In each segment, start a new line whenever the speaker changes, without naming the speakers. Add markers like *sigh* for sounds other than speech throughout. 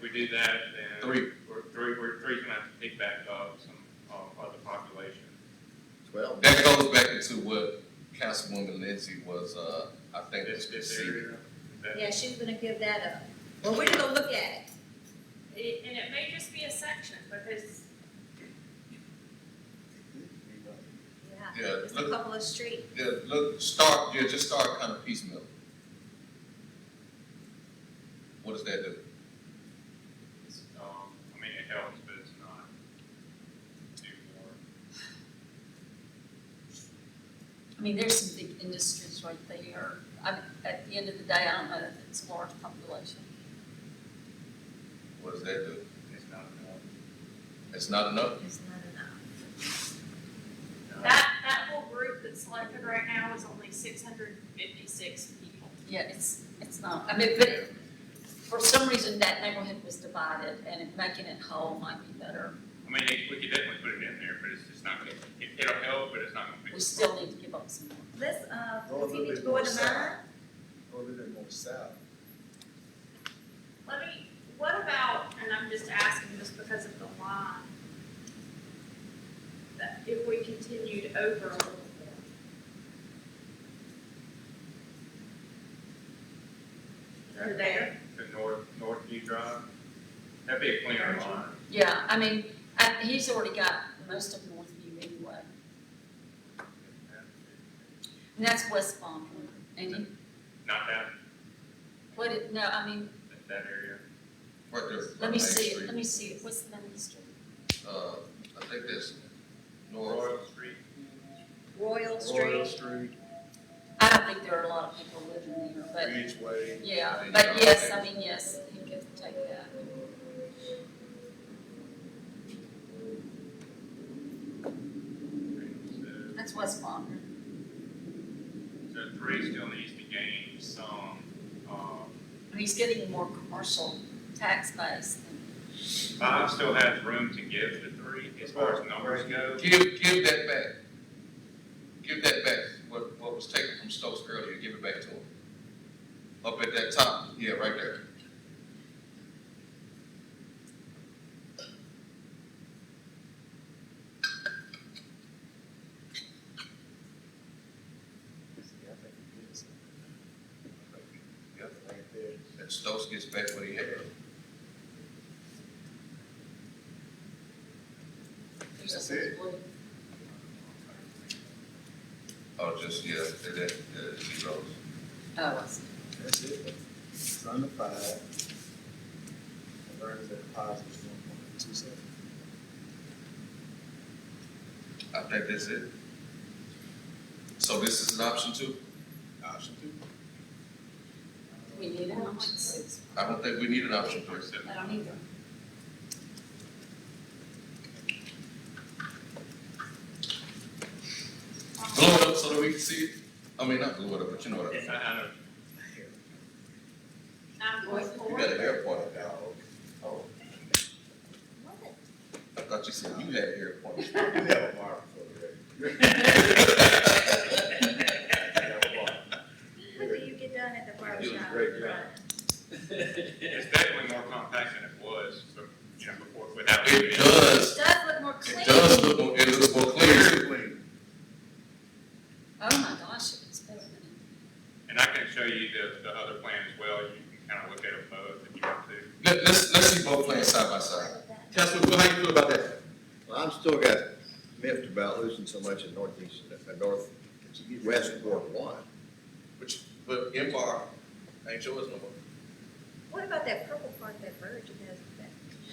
we do that, then.
Three.
We're, three, we're, three's gonna have to pick back up some, uh, other population.
Well,
That goes back to what Councilwoman Lindsay was, uh, I think.
This, this
receiving.
area. That-
Yeah, she's gonna give that up. Well, we're gonna look at it.
It- And it may just be a section, because
Yeah,
Yeah,
just a
look-
couple of streets.
Yeah, look, start, yeah, just start kind of piecemeal. What does that do?
it's, Um, I mean, it helps, but it's not too more.
I mean, there's some big industries right there. I, at the end of the day, I don't know if it's a large population.
What does that do?
It's not enough.
It's not enough?
It's not enough.
Uh,
that, that whole group that's selected right now is only six hundred and fifty-six people.
Yeah, it's, it's not, I mean, but for some reason, that neighborhood was divided, and it- making it whole might be better.
I mean, it- we could definitely put it in there, but it's just not gonna, it, it'll help, but it's not gonna
We
fix.
still need to give up some more.
Let's, uh,
Go a little
continue to
bit
go
more
into
south.
mine.
go a little bit more south.
Let me, what about, and I'm just asking just because of the line, that if we continued over a little bit? Or there,
The north, north view drive, that'd be a cleaner line.
Yeah, I mean, I, he's already got most of Northview anyway, and that's West Palm, and he,
Not that,
what it, no, I mean,
that- that area.
Right there.
let me
on Main
see, it.
Street.
let me see, it. what's the name of the street?
Uh, I think that's north,
Royal Street,
Royal
Royal
Street.
Street,
I don't think there are a lot of people living there, but
Ridgeway.
Yeah, but yes, I mean, yes, he could take that.
so,
That's West Palm.
so three still needs to gain some, um,
And he's getting more commercial tax base than,
five still has room to give to three as far as numbers go.
give, give that back. Give that back, what, what was taken from Stokes earlier, give it back to him. Up at that top, yeah, right there.
Yep, right there.
That Stokes gets back what he had.
there's
That's
just
it.
little,
Oh, just, yeah, that, that, uh, zeros.
oh, I see.
That's it. It's under five. And earnings and deposits one point two seven.
I think that's it. So this is an option two?
Option two.
we need an option six.
I don't think we need an option
Or
three.
seven.
I don't either.
Blow it up so that we can see it. I mean, not blow it up, but you know what I mean.
Yes, I, I know.
nine point
You
four,
got an airport up there. Oh,
What?
I thought you said you had an airport.
You have a mark for it, right? You have a mark.
What do you get done at the barber
You're doing
shop?
great,
Right.
It's definitely more compact than it was from, you know, before, without.
*laughs* It does,
It does look more clean.
it does look, more- it looks more clear.
Oh my gosh, it's better than,
And I can show you the, the other plan as well, you can kind of look at them both if you want to.
Let, let's, let's see both plans side by side. Councilman, Wood, how you feel about that?
Well, I'm still got miffed about losing so much in northeast, uh, northwest Ward One.
But, you- but MR ain't yours no more.
What about that purple part, that verge, you guys, that?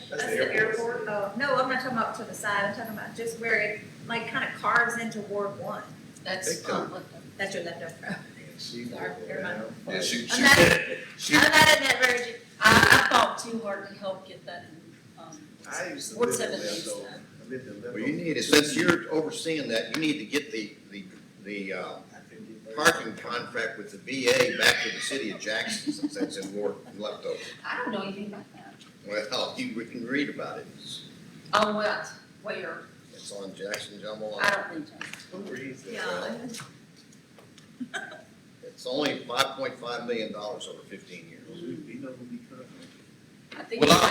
That's
That's the
the airport.
airport.
Oh, no, I'm not talking about to the side, I'm talking about just where it, like, kind of carves into Ward One.
that's
Big time.
not what the-
That's your leftover.
And she will
Sorry,
go
never mind.
down.
Yeah, she,
I'm
she,
not, I'm
she,
not in that verge.
I, I fought too hard to help get that in, um,
I used to
Ward
live in
seven uh, needs
Lebanon.
that.
I lived in Lebanon.
Well, you need, to- since you're overseeing that, you need to get the, the, the, uh,
I couldn't get there.
parking contract with the VA back to the city of Jackson, since that's in Ward Leftover.
I don't know anything about that.
Well, you we can read about it, it's,
Oh, what, where,
it's on Jackson Jumble,
I don't need to.
Who reads that?
Yeah.
it's only five point five million dollars over fifteen years.
We, we know who we come from.
I think.
well, I,